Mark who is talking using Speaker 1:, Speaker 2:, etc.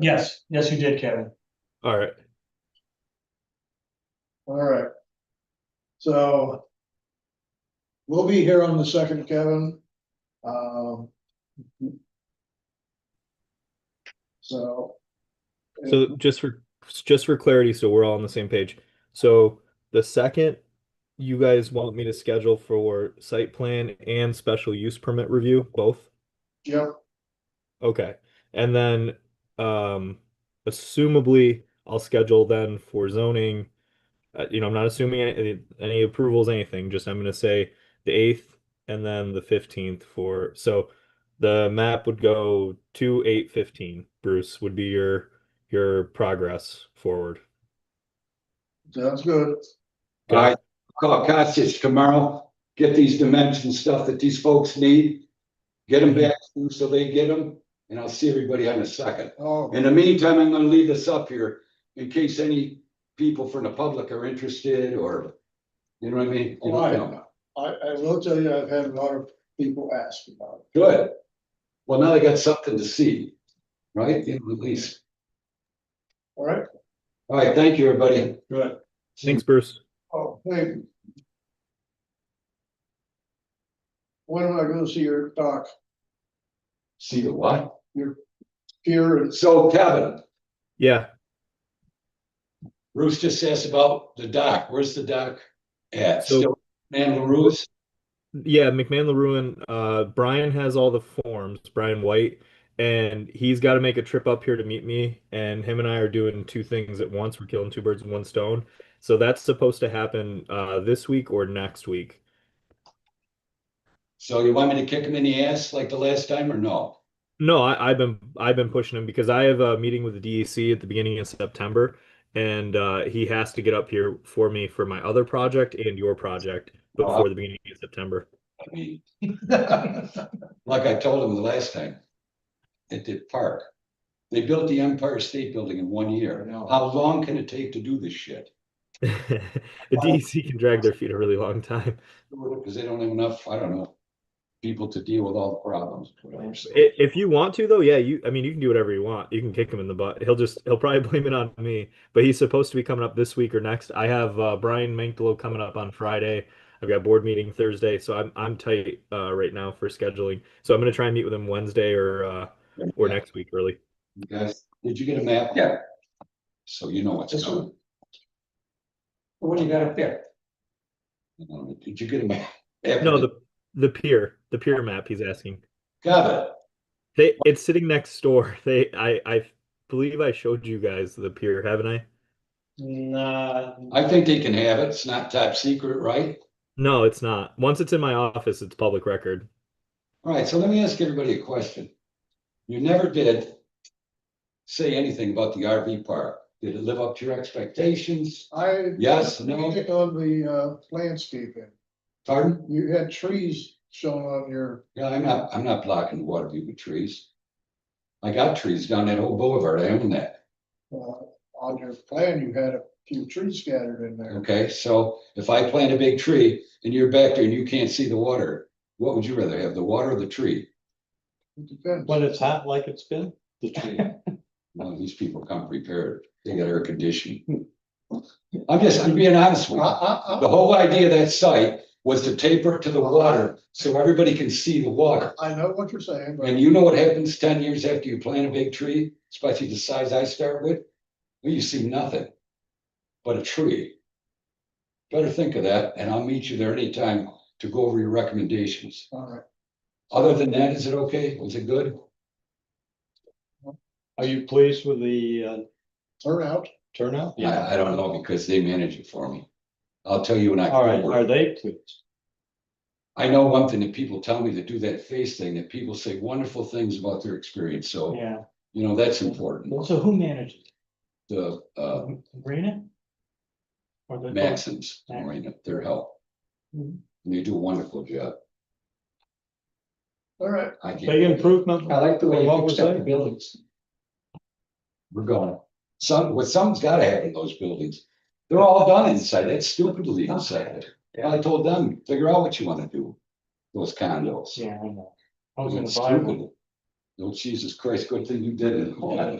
Speaker 1: Yes, yes, you did, Kevin.
Speaker 2: All right.
Speaker 3: All right. So. We'll be here on the second, Kevin. Um. So.
Speaker 2: So just for just for clarity, so we're all on the same page. So the second you guys want me to schedule for site plan and special use permit review, both?
Speaker 3: Yep,
Speaker 2: Okay. And then um assumably I'll schedule then for zoning. Uh, you know, I'm not assuming any any approvals, anything, just I'm gonna say the eighth and then the fifteenth for so the map would go to eight fifteen, Bruce, would be your your progress forward.
Speaker 3: sounds good.
Speaker 2: Got
Speaker 4: All right, call Costas tomorrow, get these dimension stuff that these folks need. Get them back to you so they get them, and I'll see everybody on the second.
Speaker 3: Oh,
Speaker 4: In the meantime, I'm gonna leave this up here in case any people from the public are interested or, you know what Oh, I mean? You don't know.
Speaker 3: I, I will tell you, I've had a lot of people ask about it.
Speaker 4: Good. Well, now they got something to see, right? You know, At least.
Speaker 3: All right.
Speaker 4: All right, thank you, everybody.
Speaker 3: Good.
Speaker 2: Thanks, Bruce.
Speaker 3: Oh, thank you. When am I gonna see your doc,
Speaker 4: See you what?
Speaker 3: here and
Speaker 4: So Kevin,
Speaker 2: Yeah.
Speaker 4: Bruce just asked about the dock. Where's the dock at?
Speaker 2: So-
Speaker 4: Still, man, LaRue's?
Speaker 2: Yeah, McMahon LaRuin, uh, Brian has all the forms, Brian White, and he's got to make a trip up here to meet me. And him and I are doing two things at once. We're killing two birds with one stone. So that's supposed to happen uh, this week or next week.
Speaker 4: So you want me to kick him in the ass like the last time or no?
Speaker 2: No, I, I've been I've been pushing him because I have a meeting with the DEC at the beginning of September, and uh, he has to get up here for me for my other project and your project before the beginning of September.
Speaker 4: I mean, like I told him the last time at the park, they built the Empire State Building in one year.
Speaker 3: I know.
Speaker 4: How long can it take to do this shit?
Speaker 2: The DEC can drag their feet a really long time.
Speaker 4: Because they don't have enough, I don't know, people to deal with all the problems.
Speaker 2: I- If you want to, though, yeah, you. I mean, you can do whatever you want. You can kick him in the butt. He'll just. He'll probably blame it on me. But he's supposed to be coming up this week or next. I have uh, Brian Manklow coming up on Friday. I've got board meeting Thursday, so I'm I'm tight uh, right now for scheduling. So I'm gonna try and meet with him Wednesday or uh, or next week early.
Speaker 4: You Guys, did you get a map? Yeah. So you know what's
Speaker 1: This one?
Speaker 4: coming.
Speaker 1: What do you got up there?
Speaker 4: Um, Did you get a map?
Speaker 2: No, the the pier, the pier map. He's asking.
Speaker 4: Got it.
Speaker 2: They it's sitting next door. They I I believe I showed you guys the pier, haven't I?
Speaker 1: Nah,
Speaker 4: I think they can have it. It's not top secret, right?
Speaker 2: No, it's not. Once it's in my office, it's public record.
Speaker 4: All right, so let me ask everybody a question. You never did say anything about the RV park. Did it live up to your expectations?
Speaker 3: I.
Speaker 4: Yes, no?
Speaker 3: On the uh, landscaping,
Speaker 4: Pardon?
Speaker 3: you had trees shown on your,
Speaker 4: Yeah, I'm not, I'm not blocking the water view with trees. I got trees down that whole boulevard. I own that.
Speaker 3: uh, on your plan, you had a few trees scattered in there.
Speaker 4: Okay, so if I plant a big tree and you're back there and you can't see the water, what would you rather have, the water or the tree?
Speaker 3: It depends.
Speaker 1: when it's hot like it's been,
Speaker 4: The tree. Well, these people come prepared. They got air conditioning. I'm just, I'm being honest
Speaker 3: I,
Speaker 4: with you.
Speaker 3: I,
Speaker 4: The whole idea of that site was to taper it to the water, so everybody can see the water.
Speaker 3: I, I know what you're saying, but
Speaker 4: And you know what happens ten years after you plant a big tree, especially the size I start with? Well, you see nothing but a tree. Better think of that, and I'll meet you there anytime to go over your recommendations.
Speaker 3: all right,
Speaker 4: Other than that, is it okay? Was it good?
Speaker 1: are you pleased with the uh,
Speaker 3: turn out.
Speaker 1: turnout?
Speaker 4: I, I don't know, because they manage it for me. I'll tell you when I.
Speaker 1: All right, are they pleased?
Speaker 4: I know one thing that people tell me to do that face thing, that people say wonderful things about their experience, so.
Speaker 1: Yeah,
Speaker 4: You know, that's important.
Speaker 1: so who manages?
Speaker 4: The uh
Speaker 1: Rena? Or the?
Speaker 4: Maxims, Marina, their help.
Speaker 1: Mhm.
Speaker 4: They do a wonderful job.
Speaker 3: All right,
Speaker 4: I can't.
Speaker 1: Big improvement. from what was there?
Speaker 4: buildings. We're going. Some, what something's gotta happen in those buildings. They're all done inside. That's stupid to leave inside.
Speaker 1: Yeah.
Speaker 4: I told them, figure out what you wanna do. Those condos.
Speaker 1: Yeah, I know. I was
Speaker 4: It's
Speaker 1: gonna buy one.
Speaker 4: stupid. Oh, Jesus Christ, good thing you did it.